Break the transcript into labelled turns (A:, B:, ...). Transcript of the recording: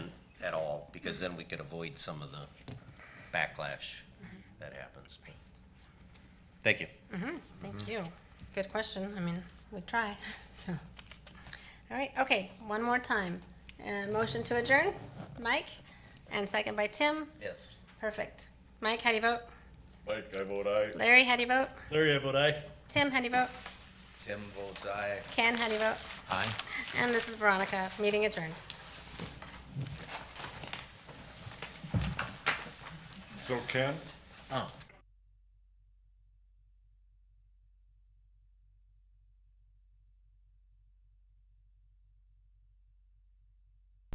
A: because then we could avoid some of the backlash that happens. Thank you.
B: Thank you. Good question. I mean, we try, so. All right, okay, one more time. And motion to adjourn, Mike, and second by Tim.
A: Yes.
B: Perfect. Mike, how do you vote?
C: Mike, I vote aye.
B: Larry, how do you vote?
D: Larry, I vote aye.
B: Tim, how do you vote?
A: Tim votes aye.
B: Ken, how do you vote?
A: Aye.
B: And this is Veronica, meeting adjourned.
C: So Ken,
D: Oh.